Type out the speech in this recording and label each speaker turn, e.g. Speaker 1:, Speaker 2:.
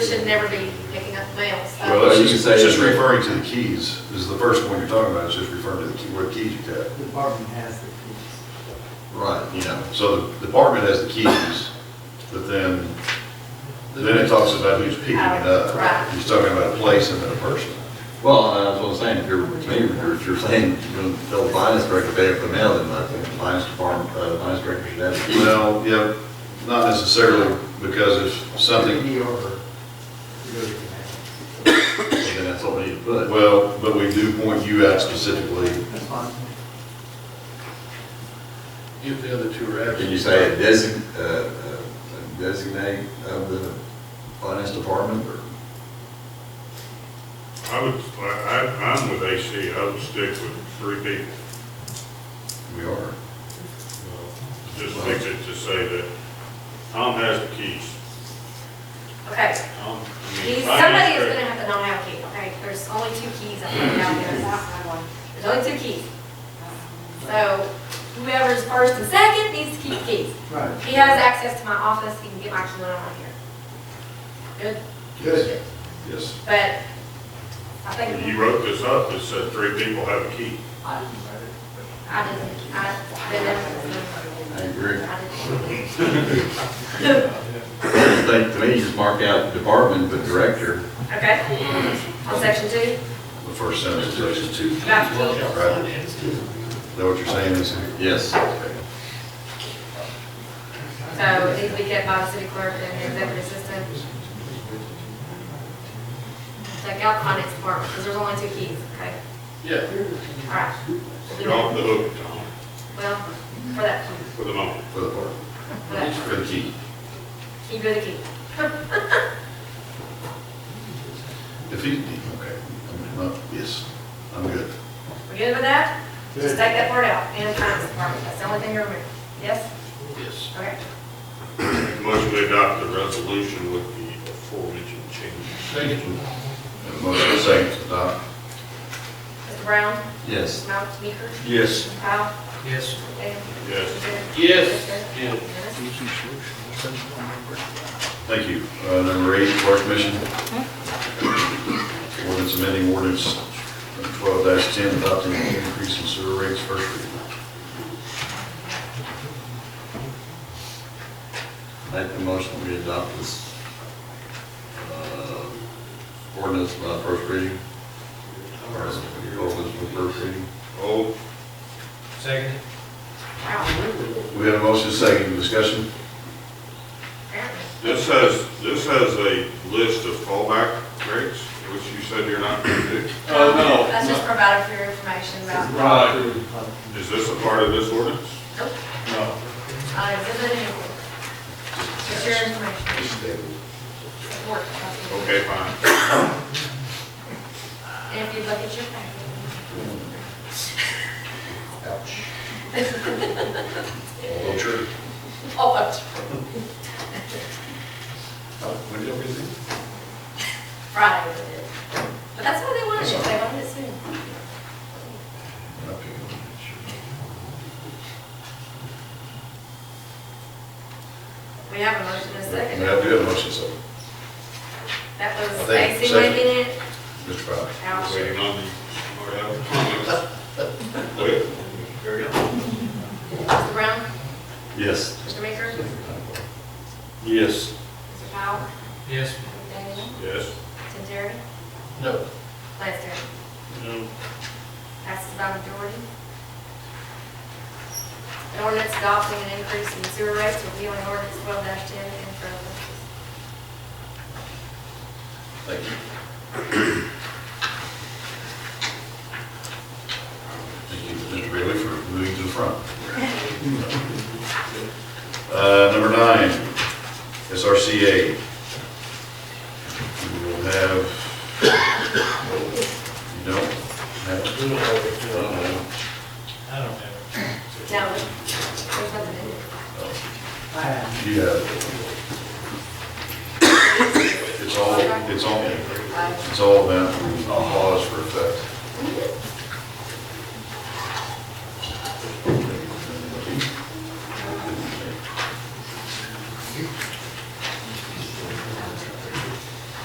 Speaker 1: We should never be picking up mails.
Speaker 2: Well, it's
Speaker 3: you
Speaker 2: just,
Speaker 3: can
Speaker 2: it's
Speaker 3: say-
Speaker 2: just referring to the keys, this is the first one you're talking about, it's just referring to the key, what keys you got.
Speaker 4: The department has the keys.
Speaker 2: Right. You know, so the department has the keys, but then, then it talks about who's picking it up.
Speaker 1: Right.
Speaker 2: He's talking about a place and then a person.
Speaker 3: Well, that's what I'm saying, if you're, maybe if you're saying, you're gonna tell the finance director to pay up the mail, then I think the finance department, uh, the finance director should have the keys.
Speaker 2: Well, yeah, not necessarily, because if something,
Speaker 4: Key or, you know, you can have.
Speaker 3: And that's all we need to put.
Speaker 2: well, but we do point you out specifically,
Speaker 4: That's fine.
Speaker 5: If the other two are absent.
Speaker 3: Can you say a design, uh, uh, a designate of the finance department or?
Speaker 6: I would, I, I- I'm with AC, I would stick with three people.
Speaker 3: We are.
Speaker 6: Uh, Just fix it to say that Tom has the keys.
Speaker 1: Okay,
Speaker 6: Tom, I mean,
Speaker 1: keys,
Speaker 6: finance
Speaker 1: somebody is
Speaker 6: director-
Speaker 1: gonna have to know how key, okay? There's only two keys out there, out there, it's not my one. There's only two keys. So whoever's first and second needs to keep the keys.
Speaker 4: Right.
Speaker 1: He has access to my office, he can get my key when I'm not here.
Speaker 4: Good.
Speaker 2: yes.
Speaker 1: Good, but I
Speaker 6: When
Speaker 1: think,
Speaker 6: you wrote this up, it said three people have a key.
Speaker 4: I didn't write it.
Speaker 1: I didn't, I didn't.
Speaker 3: I agree.
Speaker 1: I didn't.
Speaker 3: I think, to me, just mark out department, but director.
Speaker 1: Okay, on section two,
Speaker 2: The first sentence, section two, is
Speaker 1: about the keys.
Speaker 2: Right. that what you're saying is?
Speaker 3: Yes.
Speaker 1: So these we kept by the city clerk and the executive assistant. Take out the finance department, because there's only two keys, okay?
Speaker 5: Yeah.
Speaker 1: All right.
Speaker 6: You're off the hook, Tom,
Speaker 1: Well, for that,
Speaker 6: for the moment.
Speaker 2: For the part,
Speaker 1: for that,
Speaker 2: for the key.
Speaker 1: keep good key.
Speaker 2: If he, okay, I'm not- yes, I'm good.
Speaker 1: We good with that?
Speaker 4: Good.
Speaker 1: Just take that part out, and finance department, that's the only thing you're removing. Yes?
Speaker 5: Yes.
Speaker 1: Okay.
Speaker 6: Motion to adopt the resolution with the aforementioned changes.
Speaker 5: Second.
Speaker 2: And the Motion is second to adopt.
Speaker 1: Mr. Brown?
Speaker 3: Yes.
Speaker 1: Mount Meeker?
Speaker 2: Yes.
Speaker 1: Powell?
Speaker 5: Yes.
Speaker 1: McDaniel?
Speaker 6: Yes.
Speaker 5: Yes. Yeah.
Speaker 1: Dennis?
Speaker 2: Thank you. Uh, Number eight, Park Commission. Ordinance amending ordinance twelve ten adopting an increase in sewer rates first reading.
Speaker 3: Make the motion, we adopt this, uh, ordinance by first reading. Or ordinance by first reading.
Speaker 6: Oh,
Speaker 5: Second.
Speaker 1: Wow,
Speaker 2: We have a motion second, discussion?
Speaker 1: apparently.
Speaker 6: this has, this has a list of fallback rates, which you said you're not going to do.
Speaker 5: Oh, no.
Speaker 1: That's just provided for your information about,
Speaker 5: Right.
Speaker 6: Is this a part of this ordinance?
Speaker 1: nope.
Speaker 5: No.
Speaker 1: Uh, it's in the new one. It's your information. It's work.
Speaker 6: Okay, fine.
Speaker 1: And if you look at your packet.
Speaker 2: All true.
Speaker 1: Oh, up to
Speaker 2: When did we do?
Speaker 1: Friday we did. But that's why they wanted it, they wanted it soon. We have a motion in a
Speaker 2: Yeah,
Speaker 1: second.
Speaker 2: we have a motion second.
Speaker 1: That
Speaker 2: I
Speaker 1: was
Speaker 2: think
Speaker 1: AC
Speaker 2: second.
Speaker 1: making it,
Speaker 2: Mr. Fry.
Speaker 1: Al.
Speaker 6: Waiting on the. Wait.
Speaker 5: Carry on.
Speaker 1: Mr. Brown,
Speaker 3: Yes.
Speaker 1: Mr. Maker,
Speaker 3: Yes.
Speaker 1: Mr. Powell,
Speaker 5: Yes.
Speaker 1: McDaniel,
Speaker 6: Yes.
Speaker 1: Terry,
Speaker 5: No.
Speaker 1: Lester.
Speaker 5: No.
Speaker 1: Passes by majority. An ordinance adopting an increase in sewer rates repealing ordinance twelve ten in front of us.
Speaker 2: Thank you. Thank you, Mr. Bailey, for moving to the front. Uh, Number nine, SRCA. We will have, you don't have, uh,
Speaker 5: I don't have
Speaker 1: No, there's nothing in it.
Speaker 4: I have.
Speaker 2: you have, it's all, it's all,
Speaker 1: Uh,
Speaker 2: it's all about the laws for effect.